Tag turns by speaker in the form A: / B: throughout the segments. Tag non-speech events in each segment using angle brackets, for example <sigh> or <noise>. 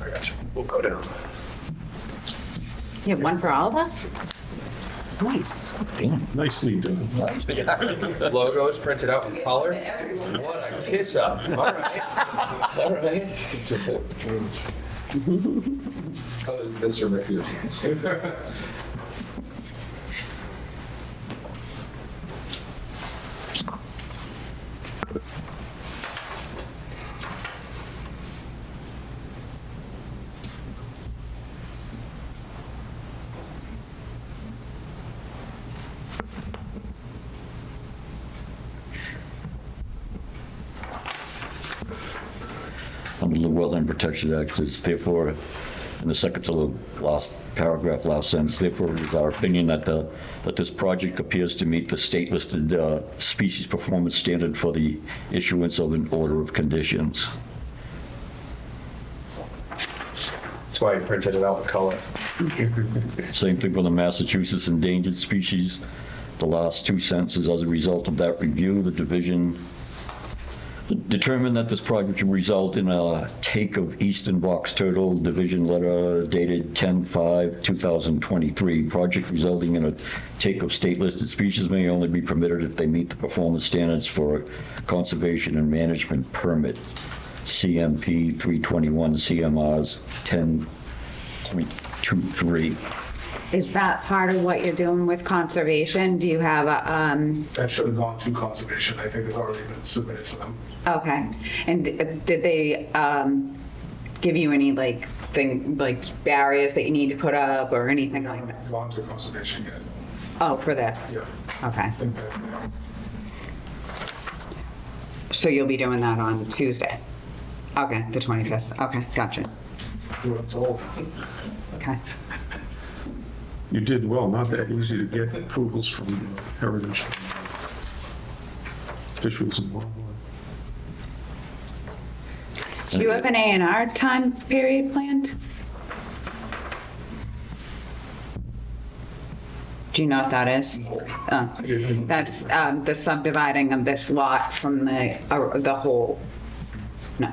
A: I got you. We'll go down.
B: You have one for all of us? Nice.
C: Nicely done.
A: Logo is printed out in color. What a kiss up. All right. All right. <laughs> How did Mr. McPherson?
D: under the Wetland Protection Act, it's therefore, in the second to the last paragraph, last sentence, therefore it is our opinion that the, that this project appears to meet the state-listed uh, species performance standard for the issuance of an order of conditions.
A: That's why I printed it out in color.
D: Same thing for the Massachusetts endangered species. The last two sentences, as a result of that review, the division determined that this project would result in a take of eastern box turtle, division letter dated 10/5/2023. Project resulting in a take of state-listed species may only be permitted if they meet the performance standards for conservation and management permit, CMP 321 CMRs 10.23.
B: Is that part of what you're doing with conservation? Do you have a, um,
C: That should have gone to conservation. I think it's already been submitted to them.
B: okay. And d- did they, um, give you any like thing, like barriers that you need to put up or anything
C: They
B: like that?
C: haven't gone to conservation yet.
B: Oh, for this?
C: Yeah.
B: Okay.
C: I think that, you know,
B: So you'll be doing that on Tuesday? Okay, the 25th. Okay, gotcha.
C: we were told.
B: Okay.
E: You did well, not that easy to get approvals from heritage officials and wildlife.
B: Do you have an A and R time period planned? Do you know what that is? Oh, That's um, the subdividing of this lot from the, uh, the whole. No,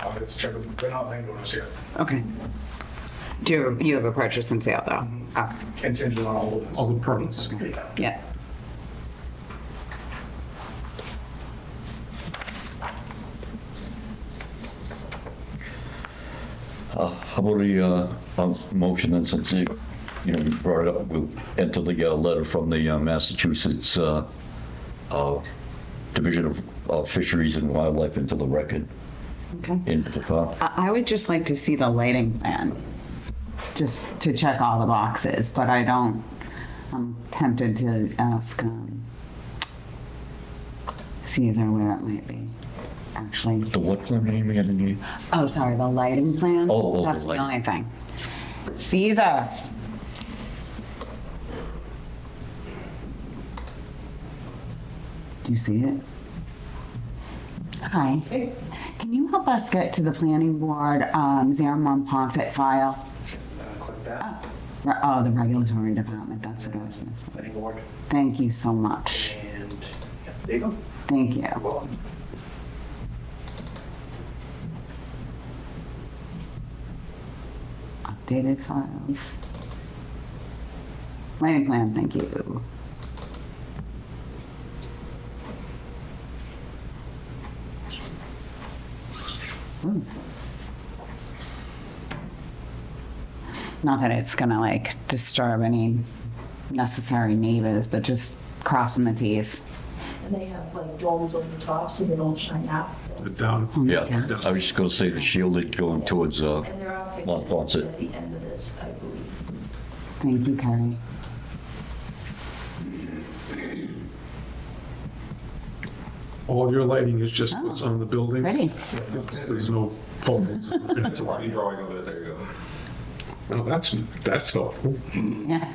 C: I'll have to check them. They're not landowners yet.
B: okay. Do you, you have a purchase and sale though? Okay,
C: Contingent on all of this.
E: All the permits.
B: yeah.
D: How about the uh, um, motion and since you, you know, you brought it up, we'll enter the uh, letter from the uh, Massachusetts uh, uh, Division of- of Fisheries and Wildlife into the record,
B: Okay.
D: into the file.
B: I, I would just like to see the lighting plan, just to check all the boxes, but I don't, I'm tempted to ask, um, Caesar where it might be, actually.
D: The what plan name again? you-
B: Oh, sorry, the lighting plan?
D: Oh, oh, the
B: That's the
D: lighting.
B: only thing. Caesar. Do you see it? Hi. Can you help us get to the planning board, um, Xeramon Ponset file?
F: Uh, Click that,
B: Re- Oh, the regulatory department, that's what I was missing.
F: planning board,
B: Thank you so much.
F: and yeah, there you go.
B: Thank you.
F: Well,
B: Updated files. Lighting plan, thank you. Ooh. Not that it's gonna like disturb any necessary neighbors, but just crossing the Ts.
G: And they have like domes over the top so they don't shine out.
E: The down.
D: Yeah, I was just going to say the shielded going towards, uh,
G: And there are
D: Well, that's
G: pictures
D: it.
G: at the end of this, I believe.
B: Thank you, Carrie.
E: All your lighting is just what's on the building.
B: Ready?
E: There's no poles.
A: It's a line drawing over it. There you go.
E: Well, that's, that's helpful.
B: Yeah.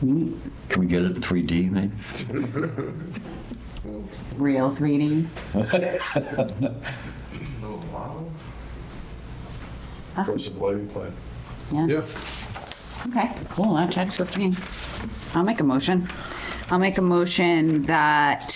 D: can we get it in 3D maybe?
B: Real 3D. Awesome.
C: Where's the lighting plan?
B: Yeah, okay, cool, that checks with me. I'll make a motion. I'll make a motion that